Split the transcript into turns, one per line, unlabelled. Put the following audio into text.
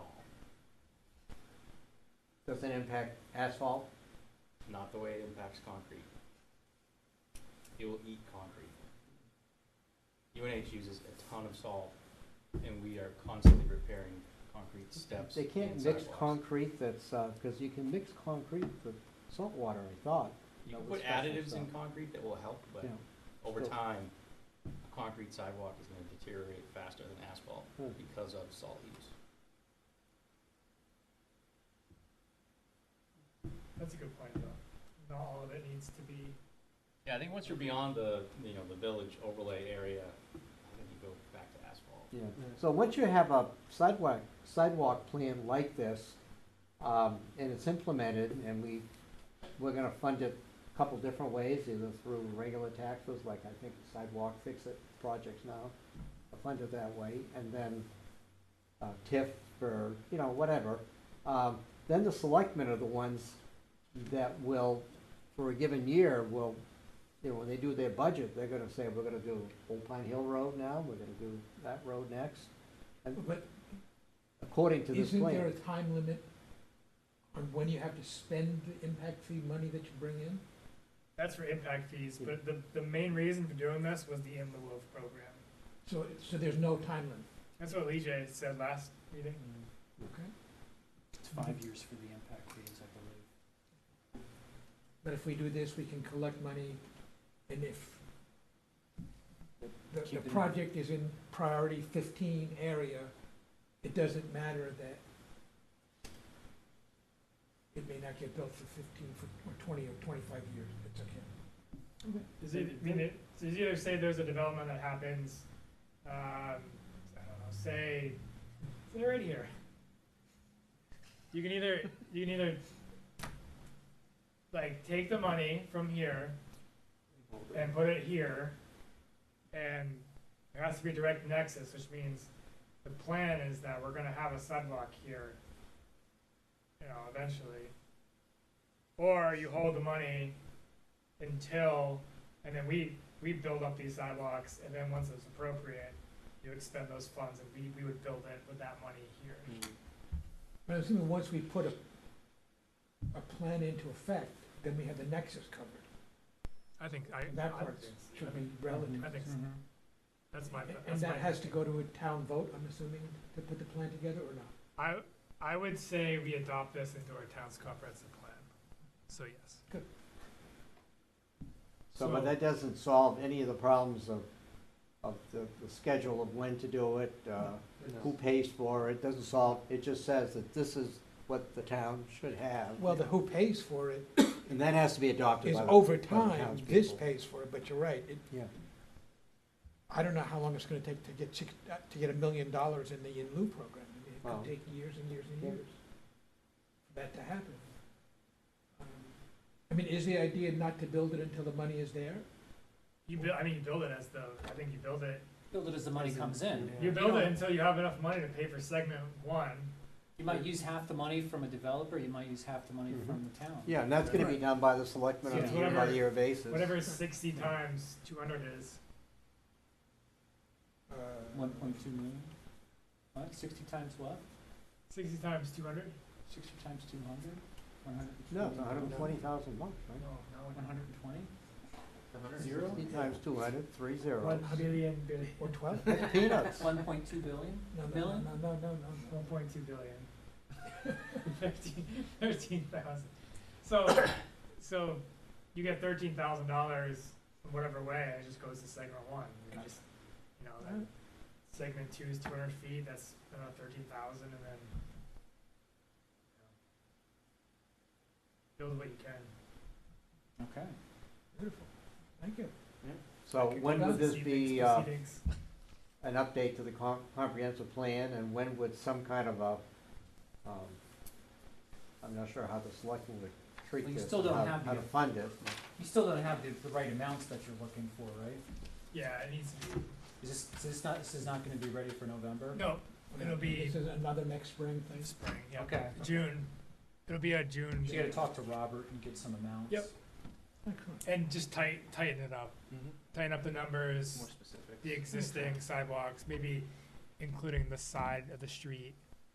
doesn't impact asphalt? Not the way it impacts concrete. It will eat concrete. UNH uses a ton of salt, and we are constantly repairing concrete steps.
They can't
and
mix
sidewalks.
concrete that's, uh 'cause because you can mix concrete with salt water, I thought.
You
No,
can
with
put
special
additives in
stuff.
concrete that will help, but
Yeah.
over
still-
time, a concrete sidewalk is gonna deteriorate faster than asphalt
Hmm.
because of salt use.
That's a good point, though. Not all of it needs to be,
Yeah, I think once you're beyond the, you know, the village overlay area, I think you go back to asphalt.
Yeah, so once you have a sidewalk, sidewalk plan like this, um, and it's implemented, and we, we're gonna fund it a couple different ways, either through regular taxes, like I think the sidewalk fix it projects now, are funded that way, and then, uh, TIF or, you know, whatever. Um, then the selectmen are the ones that will, for a given year, will, you know, when they do their budget, they're gonna say, we're gonna do Old Pine Hill Road now, we're gonna do that road next,
But
according to this
isn't there a
plan.
time limit on when you have to spend the impact fee money that you bring in?
that's for impact fees, but the, the main reason for doing this was the in the wolf program.
So, so there's no time limit?
That's what Lee J said last meeting.
Okay.
It's five years for the impact fees, I believe.
But if we do this, we can collect money, and if the,
Keep
the
it in-
project is in priority fifteen area, it doesn't matter that it may not get built for fifteen, for, or twenty, or twenty-five years, it's okay.
Is it, I mean, it, so you either say there's a development that happens, um, I don't know, say, they're right here. You can either, you can either, like, take the money from here and put it here, and there has to be direct nexus, which means the plan is that we're gonna have a sidewalk here, you know, eventually. Or you hold the money until and then we, we build up these sidewalks, and then once it's appropriate, you expend those funds, and we, we would build it with that money here.
But I'm assuming once we put a, a plan into effect, then we have the nexus covered.
I think, I.
That part should be relative.
I think so. That's my,
Mm-hmm. And
that's my.
that has to go to a town vote, I'm assuming, to put the plan together or not?
I, I would say we adopt this into our town's comprehensive plan, so yes.
So, but that doesn't solve any of the problems of, of the, the schedule of when to do it, uh, who pays for it, doesn't solve, it just says that this is what the town should have.
Well, the who pays for it
And that has to be adopted
is
by the.
over
by the
time, this
townspeople.
pays for it, but you're right. It-
Yeah.
I don't know how long it's gonna take to get, six- uh, to get a million dollars in the in lieu program. I mean,
Well.
It could take years and years and
Yeah.
years for that to happen. Um, I mean, is the idea not to build it until the money is there?
You build, I mean, you build it as the, I think you build it,
Build it as the money comes in.
you build it until you have enough money to pay for segment one,
You might use half the money from a developer, you might use half the money from the town.
Yeah, and that's gonna be
Right.
done by the selectmen on
Yeah.
a year by
Whatever-
year basis.
whatever sixty times two hundred is.
Uh,
One point two million? What, sixty times what?
Sixty times two hundred?
Sixty times two hundred? One hundred and
No,
twenty?
it's hundred and twenty thousand a month,
No,
right?
One
no,
hundred and twenty? Zero?
Sixty times two hundred, three
one
zeros.
billion, billion,
Or twelve?
That's peanuts.
One point two billion?
No, no, no,
Million?
no, no, no, no.
One point two billion. Fifteen, thirteen thousand. So, so you get thirteen thousand dollars, whatever way, it just goes to segment one. You just, you know, that segment two is two hundred feet, that's another thirteen thousand, and then you know, build what you can.
Okay.
Beautiful, thank you.
So
Could go
when
down
would
to
this
seedings,
be, uh,
proceedings.
an update to the com- comprehensive plan, and when would some kind of a, um, I'm not sure how the selectmen would treat
Well, you
this.
still don't
how-
have
How
the-
to fund it.
You still don't have the, the right amounts that you're looking for, right?
Yeah, it needs to be,
Is this, is this not, this is not gonna be ready for November?
no, It'll be-
This is another next spring thing.
spring, yeah.
Okay.
June, it'll be a June.
So you gotta talk to Robert and get some amounts?
Yep.
Excellent.
And just tighten, tighten it up, tighten up the numbers.
specific.
the existing sidewalks, maybe including the side of the street,